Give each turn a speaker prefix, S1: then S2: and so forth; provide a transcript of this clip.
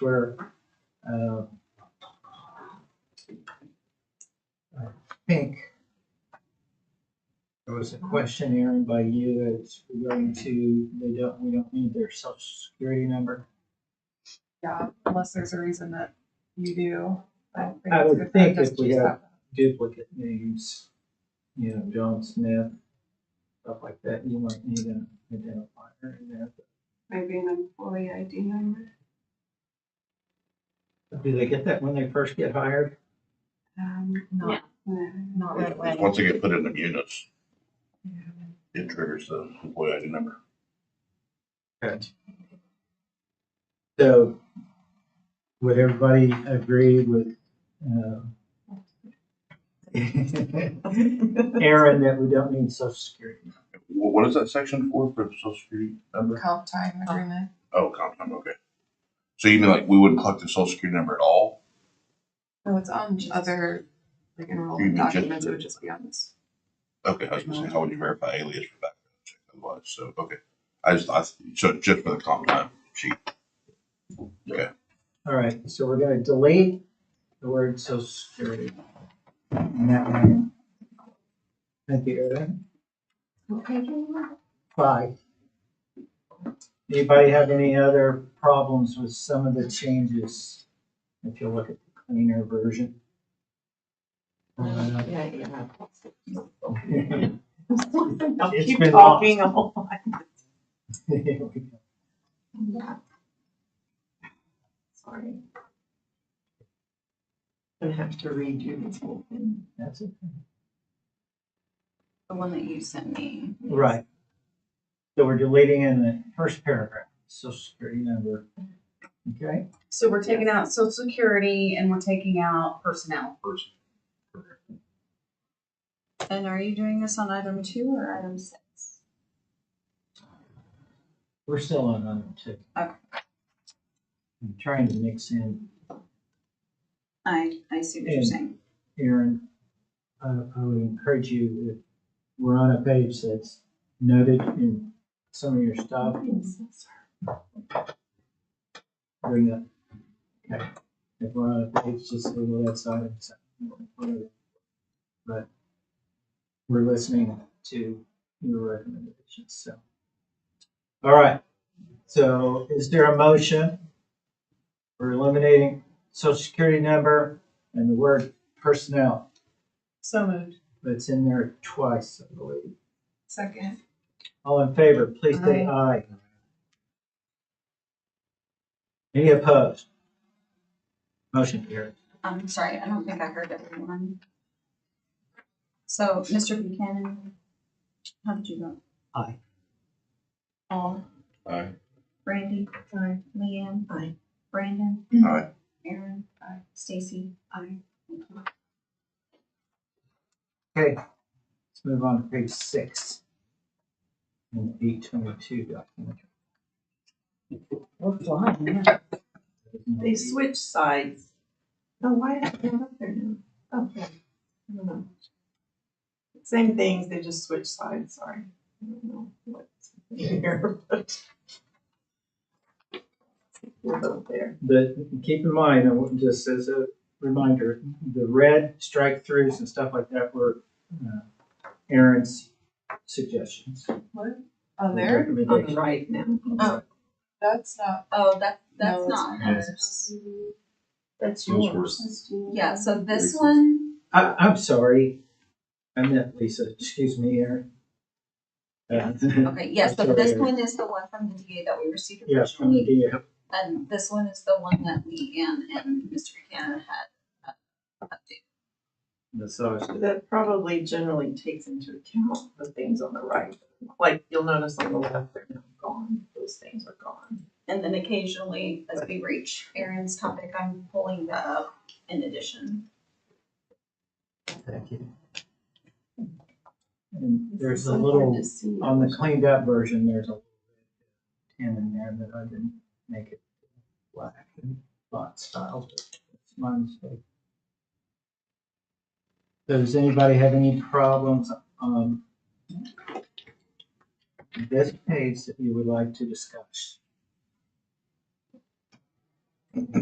S1: where, uh, I think there was a question, Aaron, by you, that's regarding to, they don't, we don't need their social security number.
S2: Yeah, unless there's a reason that you do. don't
S1: I
S2: it's
S1: would
S2: good for
S1: think
S2: just
S1: if we
S2: to
S1: have-
S2: stop.
S1: Duplicate names, you know, John Smith, stuff like that, you might need an identifier in there.
S3: Maybe an employee ID number.
S1: Do they get that when they first get hired?
S3: Um,
S2: Not,
S3: no.
S2: not right away.
S4: Once they get put in the units, it triggers the employee ID number.
S1: So would everybody agree with, uh, Aaron, that we don't need social security?
S4: Wh- What is that section for, for the social security number?
S2: Comp time agreement.
S4: Oh, comp time, okay. So you mean like we wouldn't collect the social security number at all?
S2: No, Oh, it's on other, like
S4: You
S2: enrollment
S4: mean just
S2: documents, it
S4: the-
S2: would just be on this.
S4: Okay, I was gonna say, how would you verify alias for background check otherwise, so, okay. I just, I, so just for the comp time sheet.
S1: All right, so we're gonna delete the word social security. in that line. Thank you, Aaron.
S3: Okay.
S1: Five. Anybody have any other problems with some of the changes? If you look at the cleaner version.
S5: Yeah, yeah. I'll
S1: It's
S5: keep
S1: been
S5: talking a whole lot. Sorry. Gonna have to redo this whole thing.
S1: That's it.
S6: The one that you sent me.
S1: Right. So we're deleting in the first paragraph, social security number. Okay,
S6: So we're taking out social security and we're taking out personnel. And are you doing this on item two or item six?
S1: we're still on item two.
S6: Okay.
S1: I'm trying to mix in
S6: I, I see what you're
S1: Yeah.
S6: saying.
S1: Aaron, I, I would encourage you, if we're on a page that's noted in some of your stuff, bring up. Okay. If we're on a page, just say, well, that's item seven. But we're listening to your recommendations, so. All right, so is there a motion? for eliminating social security number and the word personnel.
S2: So moved.
S1: But it's in there twice, I believe.
S2: Second.
S1: All in favor, please say aye. Any opposed? Motion carries.
S6: I'm Um, sorry, I don't think I heard everyone. So, Mr. Buchanan, how did you vote?
S1: Aye.
S6: Paul,
S4: Aye.
S6: Brandy, aye. Leanne, aye. Brandon,
S4: Aye.
S6: Aaron, aye. Stacy, aye. Thank you.
S1: Okay, let's move on to page six. In eight twenty-two document.
S5: They switch sides. Oh, why is that up there now? Okay, I don't know. Same things, they just switch sides, sorry. I don't know what's here, but. We're both there.
S1: But keep in mind, I want- just as a reminder, the red strike throughs and stuff like that were uh, Aaron's suggestions.
S2: What? On there?
S5: On the right now.
S2: That's not,
S6: Oh, that,
S2: No,
S6: that's
S2: it's
S6: not
S1: not.
S6: ours.
S5: That's
S4: Those were-
S6: Yeah, so this one,
S1: I, I'm sorry. I meant Lisa, excuse me, Aaron. Uh,
S6: okay, yes,
S1: That's
S6: but this
S1: alright.
S6: one is the one from the DA that we received
S1: Yeah, from the
S6: originally.
S1: DA.
S6: And this one is the one that Leanne and Mr. Buchanan had. uh, updated.
S1: massage.
S5: That probably generally takes into account the things on the right. Like, you'll notice on the left, they're now gone, those things are gone.
S6: And then occasionally, as we reach Aaron's topic, I'm pulling that up in addition.
S1: Thank you. And there's a
S5: It's
S1: little,
S5: hard to see.
S1: on the cleaned up version, there's a tin in there that I didn't make it black and black style. but It's my mistake. Does anybody have any problems um, on this page that you would like to discuss?